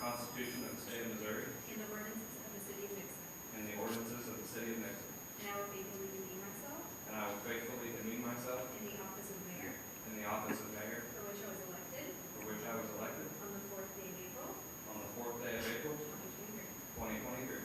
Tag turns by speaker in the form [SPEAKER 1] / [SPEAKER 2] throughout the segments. [SPEAKER 1] Constitution of the State of Missouri
[SPEAKER 2] and the ordinances of the City of Nixon.
[SPEAKER 1] and the ordinances of the City of Nixon,
[SPEAKER 2] And I will faithfully demean myself
[SPEAKER 1] and I will faithfully demean myself
[SPEAKER 2] in the office of mayor
[SPEAKER 1] in the office of mayor
[SPEAKER 2] for which I was elected
[SPEAKER 1] for which I was elected
[SPEAKER 2] on the fourth day of April,
[SPEAKER 1] on the fourth day of April,
[SPEAKER 2] twenty twenty-three.
[SPEAKER 1] twenty twenty-three.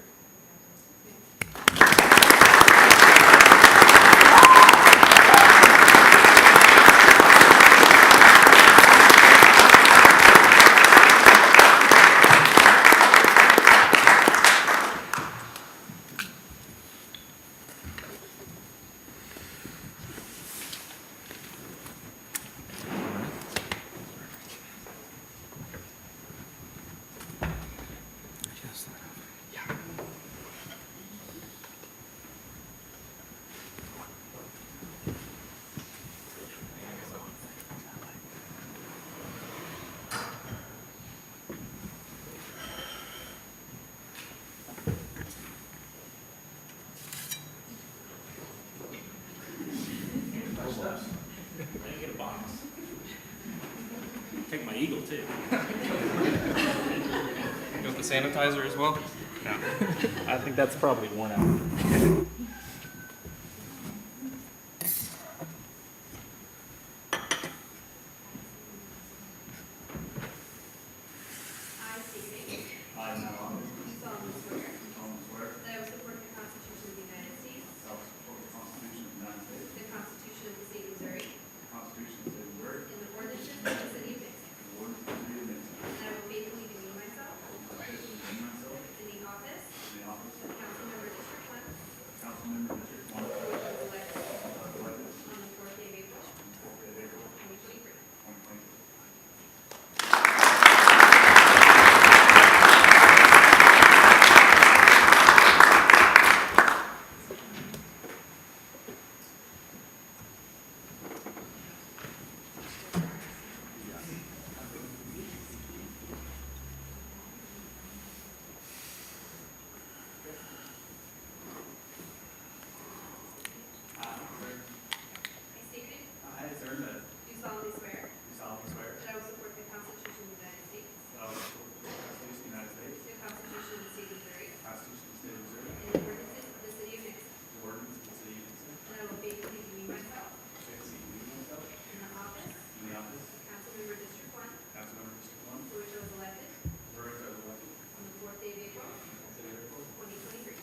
[SPEAKER 3] I didn't get a box. Take my eagle too.
[SPEAKER 1] You want the sanitizer as well?
[SPEAKER 3] I think that's probably worn out.
[SPEAKER 2] I state your name.
[SPEAKER 1] I, Matt
[SPEAKER 2] You solemnly swear
[SPEAKER 1] solemnly swear
[SPEAKER 2] that I will support the Constitution of the United States,
[SPEAKER 1] that I will support the Constitution of the United States,
[SPEAKER 2] the Constitution of the State of Missouri,
[SPEAKER 1] the Constitution of the State of Missouri,
[SPEAKER 2] and the ordinances of the City of Nixon.
[SPEAKER 1] and the ordinances of the City of Nixon,
[SPEAKER 2] And I will faithfully demean myself
[SPEAKER 1] and I will faithfully demean myself
[SPEAKER 2] in the office
[SPEAKER 1] in the office
[SPEAKER 2] of council member District One, for
[SPEAKER 1] of Councilmember District One,
[SPEAKER 2] which I was elected
[SPEAKER 1] I was elected
[SPEAKER 2] on the fourth day of April,
[SPEAKER 1] on the fourth day of April,
[SPEAKER 2] twenty twenty-three.
[SPEAKER 1] twenty twenty-three.
[SPEAKER 2] I state your name.
[SPEAKER 1] I, Aaron Bennett,
[SPEAKER 2] You solemnly swear
[SPEAKER 1] do solemnly swear
[SPEAKER 2] that I will support the Constitution of the United States,
[SPEAKER 1] that I will support the Constitution of the United States,
[SPEAKER 2] the Constitution of the State of Missouri,
[SPEAKER 1] the Constitution of the State of Missouri,
[SPEAKER 2] and the ordinances of the City of Nixon.
[SPEAKER 1] the ordinance of the City of Nixon,
[SPEAKER 2] And I will faithfully demean myself
[SPEAKER 1] faithfully demean myself
[SPEAKER 2] in the office
[SPEAKER 1] in the office
[SPEAKER 2] of council member District One,
[SPEAKER 1] of Councilmember District One,
[SPEAKER 2] for which I was elected
[SPEAKER 1] where I was elected
[SPEAKER 2] on the fourth day of April,
[SPEAKER 1] on the City of April,
[SPEAKER 2] twenty twenty-three.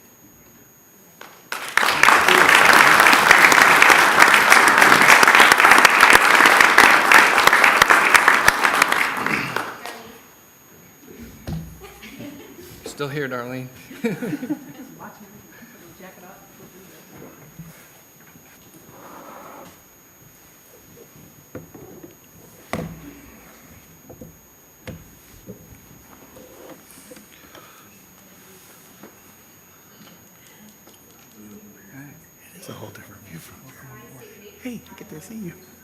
[SPEAKER 1] Still here, Darlene.
[SPEAKER 4] It's a whole different view from
[SPEAKER 2] I state your name.
[SPEAKER 4] Hey, good to see you.